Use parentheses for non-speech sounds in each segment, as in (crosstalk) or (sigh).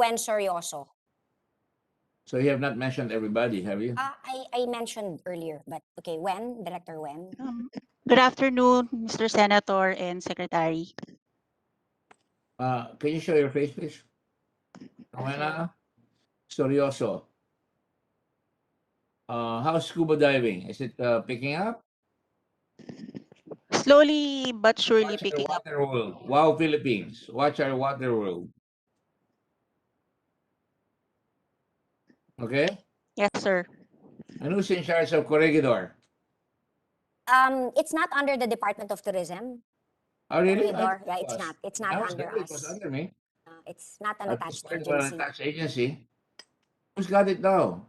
Gwen Seryoso. So you have not mentioned everybody, have you? Ah, I, I mentioned earlier, but okay, when? Director when? Um, Good afternoon, Mr. Senator and Secretary. Uh, can you show your face, please? Rowena Storioso. Uh, how's scuba diving? Is it uh, picking up? Slowly but Watch surely our picking up. water world. Wow, Philippines. Watch our water world. Okay? Yes, sir. And who's in charge of Corregidor? Um, it's not under the Department of Tourism. Oh, really? I Corridor. Yeah, thought it it's was. not. It's I not was under sure It was us. under me. Uh, It's not an I was attached worried about agency. attached agency. Who's got it now?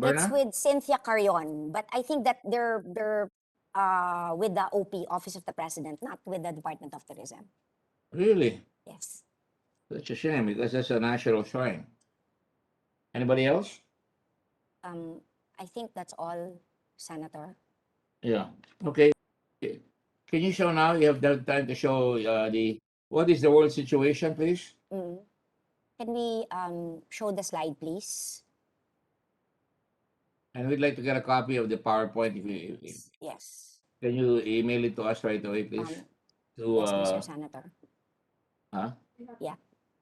It's Berna? with Cynthia Carion, but I think that they're, they're, uh, with the OP, Office of the President, not with the Department of Tourism. Really? Yes. That's a shame because that's a national shrine. Anybody else? Um, I think that's all, Senator. Yeah. Okay. Can you show now? You have the time to show uh, the what is the world situation, please? Mm. Can we, um, show the slide, please? And we'd like to get a copy of the PowerPoint. If you if- if- Yes. can, you email it to us right away, please. Um, To Yes, uh, Mr. Senator. huh? Yeah.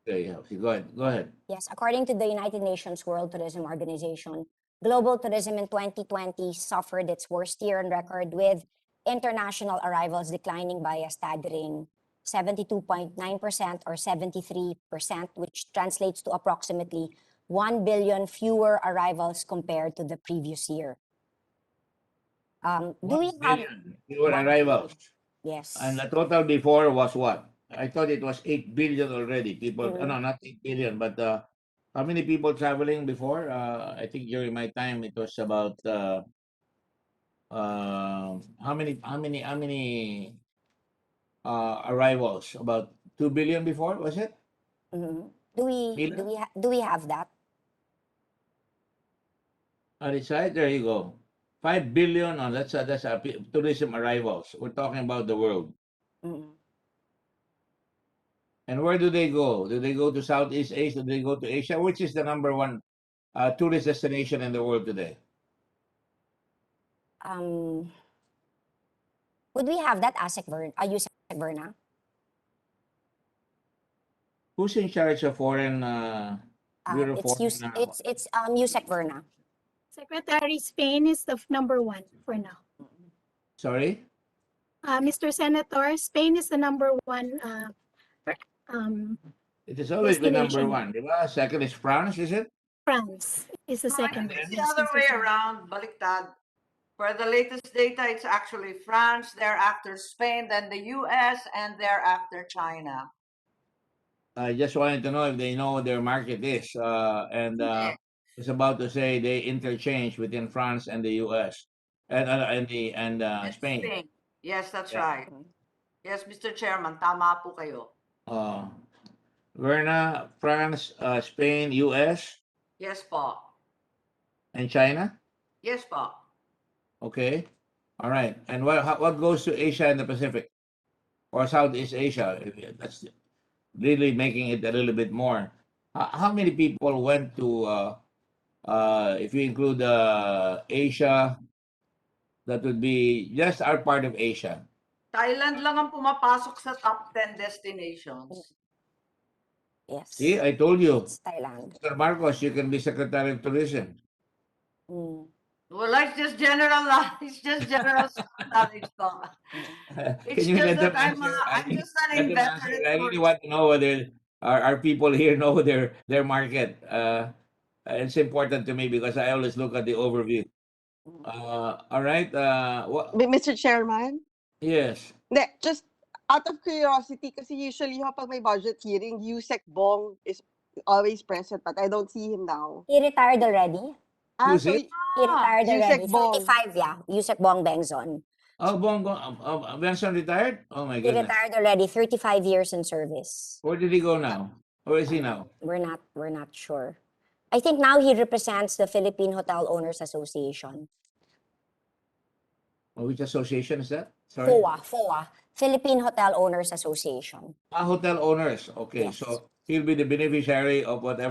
There you have. Go ahead. Go ahead. Yes, according to the United Nations World Tourism Organization, global tourism in 2020 suffered its worst year on record with international arrivals declining by a staggering 72.9% or 73%, which translates to approximately 1 billion fewer arrivals compared to the previous year. Um, do we One have billion fewer one- arrivals? yes. And the total before was what? I thought it was eight billion already. People, Mm. no, not eight billion, but uh, how many people traveling before? Uh, I think during my time it was about uh, uh, how many, how many, how many uh, arrivals? About two billion before was it? mhm. Do we do Mila? we ha- do we have that? On its side, there you go. Five billion on that's uh, that's uh, pe- tourism arrivals. We're talking about the world. Mm. And where do they go? Do they go to Southeast Asia? Do they go to Asia? Which is the number one uh, tourist destination in the world today? Um, would we have that ASEC Verna? Are you Verna? Who's in charge of foreign? Uh, Uh, Bureau it's for Yus- now. it's it's um USEC Verna. Secretary Spain is the f- number one for now. sorry, Uh, Mr. Senator, Spain is the number one, uh, per- um, it has always been number Destination. one. di ba? Second is France, is it? France is the second. then- one, It's the yes, other Mr. way Senator. around, baliktad. For the latest data, it's actually France, thereafter Spain, then the US, and thereafter China. I just wanted to know if they know what their market is, uh, and uh, it's about to say they interchange between France and the U.S. and uh, and the and uh, And Spain. Yes, that's Yeah. right. Mm. Yes, Mr. Chairman, tama po kayo. Uh, Verna, France, uh, Spain, U.S. Yes po. and China. Yes po. Okay, all right. And what how, what goes to Asia and the Pacific, or Southeast Asia? if you- That's really making it a little bit more. How, how many people went to, uh, uh, if you include uh, Asia, that would be just our part of Asia. Thailand lang ang pumapasok sa top 10 destinations. Yes. See, I told you, It's Thailand. Mr. Marcos, you can be Secretary of Tourism. (laughs) Mm. Well, it's just general, (laughs) it's just general knowledge po. It's Can you let just them that I'm, answer? a- I I'm think- just an let them answer. inveterate. I really tourist. want to know whether our, our people here (laughs) know their, their market. Uh, it's important to me because I always look at the overview. mm. Uh, all right, uh, what, Mi- Mr. Chairman? yes, Hindi, just out of curiosity, kasi usually ho, pag may budget hearing, Yusek Bong is always present, but I don't see him now. He retired already. Ah, Who's so it? He retired Yusek already. Bong. 45, yeah. Yusek Bong Bengzon. oh, Bongo, um, um, Benson retired? Oh my He goodness, retired already. 35 years in service. where did he go now? Where is he now? We're not we're not sure. I think now he represents the Philippine Hotel Owners Association. Oh, Which association is that? Sorry, FOA, FOA, Philippine Hotel Owners Association. ah, hotel owners, okay, Yes. so he'll be the beneficiary of whatever